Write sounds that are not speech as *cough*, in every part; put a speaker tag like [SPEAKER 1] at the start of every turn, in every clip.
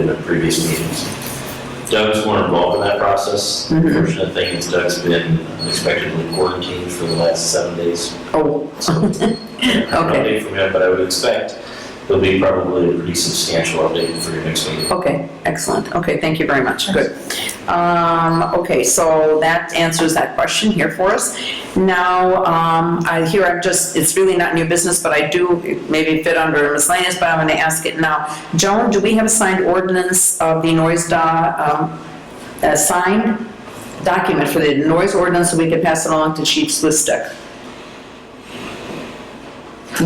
[SPEAKER 1] in the previous meetings. Mm-hmm. Doug's more involved in that process. The
[SPEAKER 2] Mhm.
[SPEAKER 1] Fortunate thing is Doug's been unexpectedly quarantined for the last seven days.
[SPEAKER 2] Oh,
[SPEAKER 1] *laughs* So I don't know
[SPEAKER 2] Okay.
[SPEAKER 1] date from him, but I would expect there'll be probably a pretty substantial update for your next meeting.
[SPEAKER 2] okay, excellent. Okay, thank you very much. Good. Um, okay, so that answers that question here for us. Now, um, I hear I'm just, it's really not new business, but I do maybe fit under miscellaneous, but I'm gonna ask it now. Joan, do we have a signed ordinance of the noise da, um, a signed document for the noise ordinance so we could pass it along to Chief Swistick?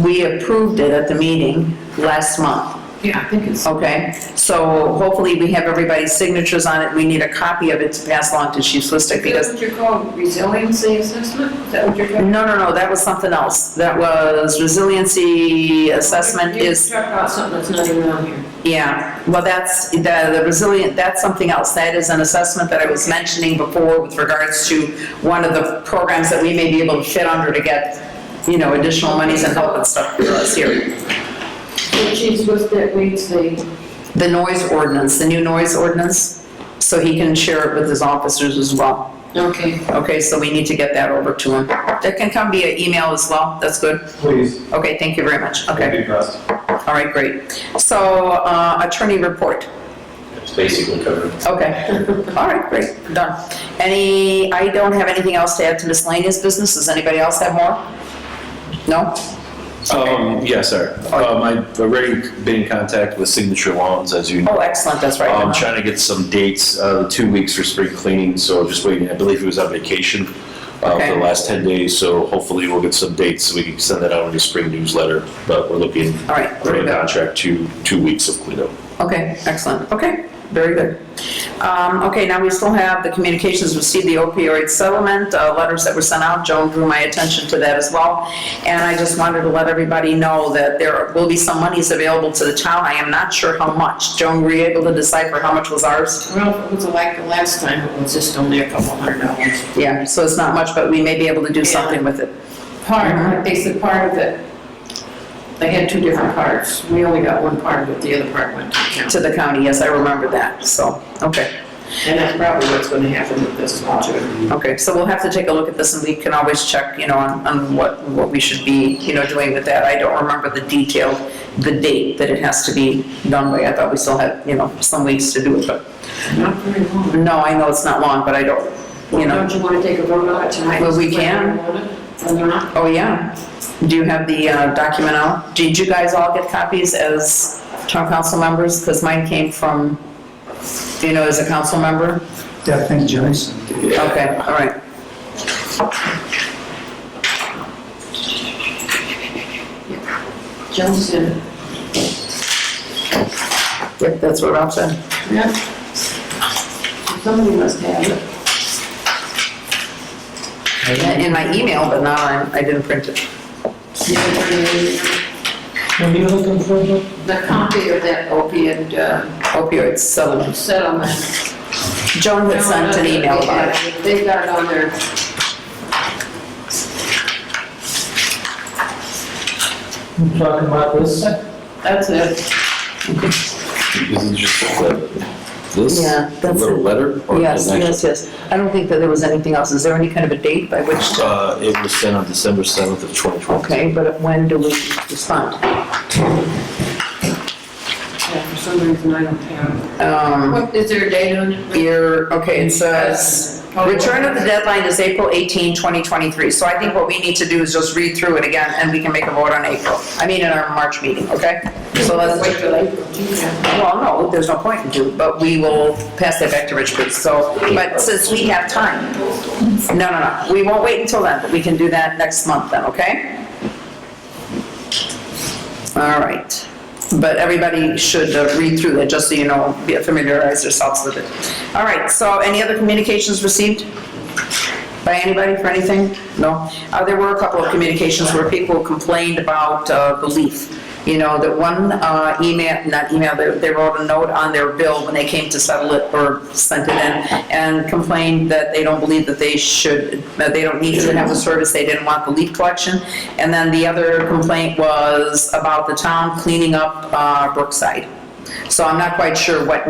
[SPEAKER 2] We approved it at the meeting last month.
[SPEAKER 3] Yeah, I think it's.
[SPEAKER 2] Okay, so hopefully we have everybody's signatures on it, we need a copy of it to pass along to Chief Swistick,
[SPEAKER 3] That's
[SPEAKER 2] because,
[SPEAKER 3] what you're called, resiliency assessment? Is that what you're
[SPEAKER 2] no,
[SPEAKER 3] talking?
[SPEAKER 2] no, no, that was something else, that was resiliency assessment is,
[SPEAKER 3] You're talking about something that's not even on here.
[SPEAKER 2] yeah, well, that's, the the resilient, that's something else, that is an assessment that I was mentioning before with regards to one of the programs that we may be able to fit under to get, you know, additional monies and help and stuff for us here.
[SPEAKER 3] Which is what that reads the,
[SPEAKER 2] The noise ordinance, the new noise ordinance, so he can share it with his officers as well.
[SPEAKER 3] okay.
[SPEAKER 2] Okay, so we need to get that over to him. That can come via email as well, that's good.
[SPEAKER 4] Please,
[SPEAKER 2] Okay, thank you very much.
[SPEAKER 4] it'd
[SPEAKER 2] Okay,
[SPEAKER 4] be best.
[SPEAKER 2] all right, great. So uh, attorney report,
[SPEAKER 1] It's basically covered.
[SPEAKER 2] *laughs* okay. All right, great, done. Any, I don't have anything else to add to miscellaneous business, does anybody else have more? No?
[SPEAKER 5] Um, yes, sir. Um, I've already been in contact with Signature Lawns, as you know.
[SPEAKER 2] Oh, excellent, that's right.
[SPEAKER 5] Um, trying to get some dates, uh, two weeks for spring cleaning, so just waiting. I believe he was on vacation, uh, for
[SPEAKER 2] Okay.
[SPEAKER 5] the last ten days, so hopefully we'll get some dates, so we can send that out in the spring newsletter, but we're looking
[SPEAKER 2] All right,
[SPEAKER 5] for
[SPEAKER 2] very
[SPEAKER 5] a
[SPEAKER 2] good.
[SPEAKER 5] contract, two, two weeks of cleanup.
[SPEAKER 2] Okay, excellent, okay, very good. Um, Okay, now we still have the communications received, the opioid settlement, uh, letters that were sent out, Joan drew my attention to that as well, and I just wanted to let everybody know that there will be some monies available to the town, I am not sure how much. Joan, were you able to decipher how much was ours?
[SPEAKER 3] Well, it was like the last time, it was just only a couple hundred dollars.
[SPEAKER 2] Yeah, so it's not much, but we may be able to do something with it.
[SPEAKER 3] Part, they said part of it, they had two different parts. We only got one part of it, the other part went to
[SPEAKER 2] To
[SPEAKER 3] council.
[SPEAKER 2] the county, yes, I remember that, so, okay,
[SPEAKER 3] And that's probably what's gonna happen with this one too.
[SPEAKER 2] okay, so we'll have to take a look at this, and we can always check, you know, on, on what, what we should be, you know, doing with that. I don't remember the detail, the date that it has to be done by, I thought we still had, you know, some weeks to do it, but,
[SPEAKER 3] Not very long.
[SPEAKER 2] no, I know it's not long, but I don't, you know,
[SPEAKER 3] Don't you wanna take a vote on it tonight?
[SPEAKER 2] Well, we can.
[SPEAKER 3] Whether or not,
[SPEAKER 2] oh, yeah. Do you have the uh, document out? Did you guys all get copies as town council members? Because mine came from, do you know, as a council member?
[SPEAKER 4] Yeah, thank you, Joyce.
[SPEAKER 2] Okay, all right.
[SPEAKER 3] Johnson.
[SPEAKER 2] Yep, that's what Ralph said.
[SPEAKER 3] Yep. Somebody must have it.
[SPEAKER 2] in my email, but not on, I didn't print it.
[SPEAKER 3] The
[SPEAKER 4] What are you looking for?
[SPEAKER 3] copy of that opiate uh,
[SPEAKER 2] Opioids settlement.
[SPEAKER 3] settlement.
[SPEAKER 2] Joan had sent an email about it.
[SPEAKER 3] They've got it on their,
[SPEAKER 4] You talking about this?
[SPEAKER 3] that's it.
[SPEAKER 5] Isn't it just that, this,
[SPEAKER 2] Yeah,
[SPEAKER 5] the
[SPEAKER 2] that's
[SPEAKER 5] little
[SPEAKER 2] it.
[SPEAKER 5] letter? or
[SPEAKER 2] Yes,
[SPEAKER 5] is it-
[SPEAKER 2] yes, yes. I don't think that there was anything else. Is there any kind of a date by which, to-
[SPEAKER 5] Uh, it was sent on December seventh of twenty twenty.
[SPEAKER 2] okay, but when do we respond?
[SPEAKER 3] Yeah, For some reason, I don't have it.
[SPEAKER 2] Um,
[SPEAKER 3] What, is there a date on it?
[SPEAKER 2] Your, okay, it says, return of the deadline is April 18, 2023. So I think what we need to do is just read through it again, and we can make a vote on April. I mean, in our March meeting, okay? So let's,
[SPEAKER 3] Wait till April. Yeah.
[SPEAKER 2] Well, no, there's no point in doing, but we will pass that back to Rich, please, so, but since we have time, no, no, no, we won't wait until then, but we can do that next month then, okay? All right, but everybody should uh, read through that, just so you know, be- familiarize yourselves with it. All right, so any other communications received? by anybody for anything? No? Uh, There were a couple of communications where people complained about uh, the leaf. You know, that one uh, email, not email, they they wrote a note on their bill when they came to settle it or sent it in and complained that they don't believe that they should, that they don't need to have the service, they didn't want the leaf collection. And then the other complaint was about the town cleaning up uh, Brookside. So I'm not quite sure what